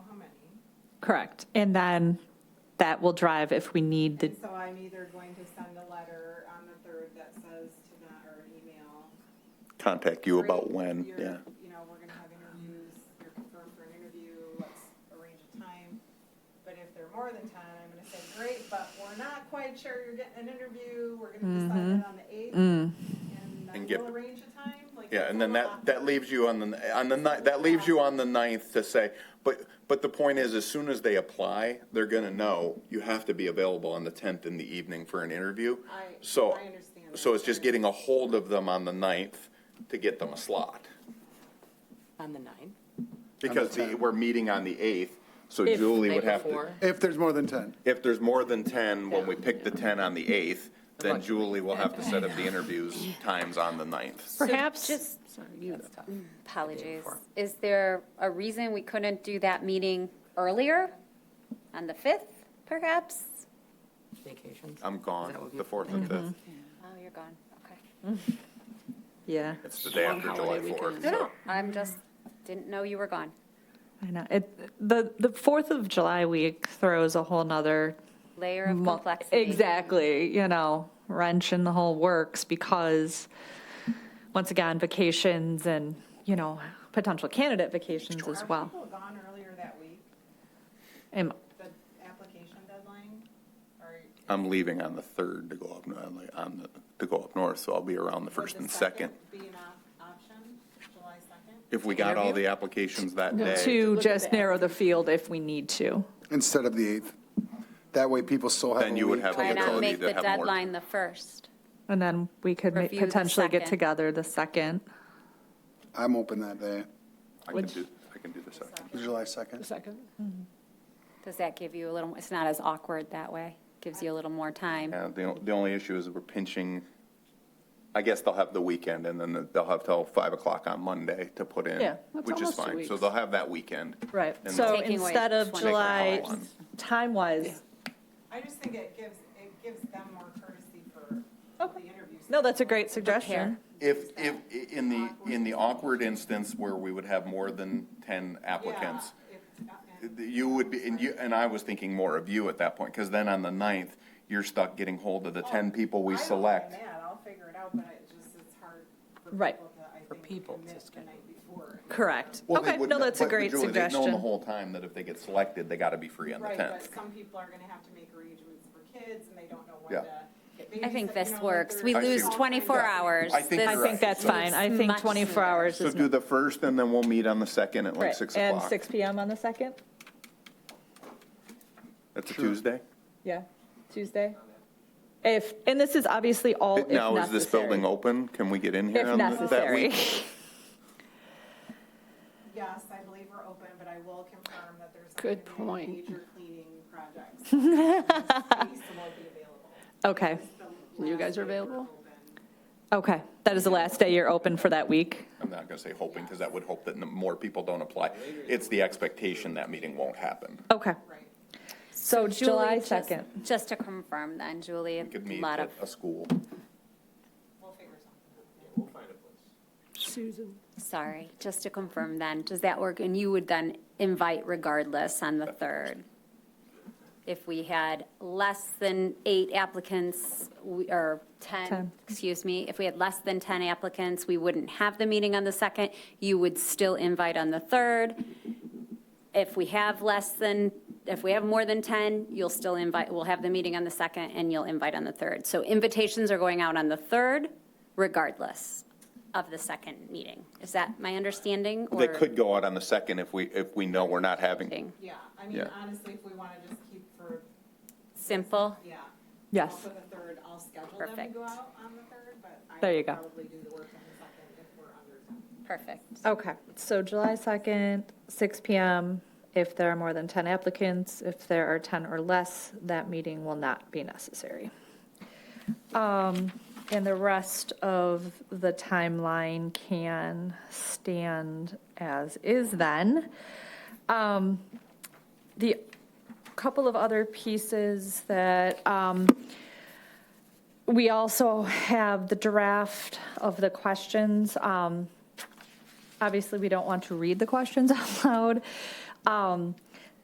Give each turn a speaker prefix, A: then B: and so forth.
A: Correct. And then that will drive if we need the,
B: And so I'm either going to send a letter on the third that says to not, or an email.
C: Contact you about
B: Great,
C: when,
B: you're-
C: yeah.
B: You know, we're gonna have interviews, you're confirmed for an interview, let's arrange a time. But if they're more than ten, I'm gonna say, great, but we're not quite sure you're getting an interview, we're gonna
A: Mm-hmm.
B: decide that on the eighth.
A: Mm.
B: And then
C: And get-
B: we'll arrange a time, like.
C: Yeah,
B: that's
C: and
B: a
C: then
B: little
C: that, that
B: awkward.
C: leaves you on the, on the ninth, that leaves you on the ninth to say, but, but the point is, as soon as they apply, they're gonna know, you have to be available on the tenth in the evening for an interview.
B: I-
C: So,
B: I understand
C: so
B: that.
C: it's just getting a hold of them on the ninth to get them a slot.
D: On the 9th?
C: Because the- we're meeting on the eighth, so
D: If
C: Julie
D: night
C: would have to.
D: before.
E: If there's more than 10.
C: If there's more than ten, when we
D: Yeah.
C: pick the ten on the eighth, then
D: Right.
C: Julie will have to set up the interviews times on the ninth.
A: perhaps,
F: Just,
D: Sorry, you. That's tough.
F: apologies,
D: before.
F: is there a reason we couldn't do that meeting earlier? On the 5th, perhaps?
D: Vacations.
C: I'm
D: Is that
C: gone,
D: what
C: the
D: you-
C: fourth and fifth.
F: Oh, you're gone, okay.
A: yeah,
C: It's the day
D: Long
C: after July
D: holiday
C: fourth,
D: weekend.
F: No,
C: so.
F: no, I'm just, didn't know you were gone.
A: I know. It, the, the 4th of July week throws a whole nother.
F: Layer of
A: mul-
F: complexity.
A: Exactly, you know, wrench in the whole works because, once again, vacations and, you know, potential candidate vacations as
B: Are
A: well.
B: people gone earlier that week,
A: Am-
B: the application deadline, or?
C: I'm leaving on the third to go up, no- I'm like, on the, to go up north, so I'll be around the
B: would
C: first
B: the
C: and second.
B: Be an op- option, July second?
C: If we got all the applications that day,
A: To just narrow the field if we need to.
E: Instead of the 8th. That way people still have a
C: Then you would
E: week
C: have
E: to
C: the
F: Why
E: look
C: ability
F: not
E: at it.
F: make
C: to
F: the
C: have more-
F: deadline the 1st?
A: And then we could ma-
F: Review the
A: potentially get
F: second.
A: together the 2nd.
E: I'm open that day,
C: I can do, I can do the second.
E: July 2nd.
D: Second?
F: Does that give you a little, it's not as awkward that way? Gives you a little more time?
C: Yeah, the, the only issue is we're pinching, I guess they'll have the weekend and then they'll have till five o'clock on Monday to put in.
A: Yeah,
D: that's
C: Which is
D: almost two
C: fine, so
D: weeks.
C: they'll have that weekend.
A: Right,
C: And
A: so
F: Taking away
A: instead of
F: 20.
A: July,
C: Make it
A: time-wise,
B: I just think it gives, it gives them more courtesy for the
A: Okay.
B: interview.
A: no, that's a great suggestion.
C: If, if, i- in the, in the awkward instance where we would have more than ten
B: Yeah,
C: applicants,
B: if- uh,
C: th- you would be, and you, and I was thinking more of you at that point, because then on the ninth, you're stuck getting hold of the ten people we
B: Oh, I don't
C: select.
B: mind that, I'll figure it out, but it just, it's hard for
A: Right.
B: people to, I think.
D: For people to
B: commit the
D: schedule.
B: night before.
A: Correct,
C: Well, they
A: okay,
C: would
A: no,
C: know-
A: that's a
C: but- but
A: great
C: Julie, They've known the
A: suggestion.
C: whole time that if they get selected, they gotta be free on the
B: Right, but
C: tenth.
B: some people are gonna have to make arrangements for kids and they don't know when
C: Yeah.
B: to. get
F: I
B: babysit-
F: think
B: you
F: this
B: know, like
F: works. We
B: there's
F: lose
C: see.
B: all kinds of-
F: 24 hours.
C: I think
F: This-
A: I
C: you're right.
A: think that's
C: So-
A: fine, I think
F: Much
A: 24 hours
C: So
A: is
C: do
A: not.
C: the first, and then we'll meet on the second at like
A: Right,
C: six
A: And
C: o'clock.
A: six PM on the 2nd?
C: That's a Tuesday?
A: Yeah, Tuesday? If, and this is obviously all if
C: Now, is this
A: necessary.
C: building open? Can we get in here
A: If
C: on th- that
A: necessary.
C: week?
B: Yes, I believe we're open, but I will confirm that there's. not
D: Good
B: gonna be any
D: point.
B: Major cleaning projects. Space won't be available.
A: Okay,
B: The
D: You guys
B: last
D: are
B: day we're
D: available?
B: open.
A: okay, that is the last day you're open for that week?
C: I'm not gonna say hoping, because that would hope that n- more people don't apply. It's the expectation that meeting won't happen.
A: Okay,
B: Right.
A: so
F: Julie,
A: July
F: just-
A: 2nd.
F: Just to confirm then, Julie,
C: We could
F: a
C: meet
F: lot
C: at
F: of
C: a school.
B: We'll figure something out.
D: Susan?
F: Sorry, just to confirm then, does that work? And you would then invite regardless on the 3rd? If we had less than eight applicants, we- or 10,
A: Ten.
F: excuse me, if we had less than 10 applicants, we wouldn't have the meeting on the 2nd. You would still invite on the 3rd. If we have less than, if we have more than 10, you'll still invite, we'll have the meeting on the 2nd and you'll invite on the 3rd. So invitations are going out on the 3rd regardless of the second meeting. Is that my understanding?
C: They
F: or-
C: could go out on the second if we, if we know we're not having.
B: Yeah, I mean,
C: Yeah.
B: honestly, if we want to just keep for,
F: Simple?
B: yeah.
A: Yes.
B: Also the third, I'll schedule them to
F: Perfect.
B: go out on the third, but I
A: There you
B: will
A: go.
B: probably do the work on the second if we're under time.
F: Perfect.
A: Okay, so July 2nd, 6 PM. If there are more than 10 applicants, if there are 10 or less, that meeting will not be necessary. Um, And the rest of the timeline can stand as is then. Um, The couple of other pieces that, um, we also have the draft of the questions. Um, obviously, we don't want to read the questions out loud. Um,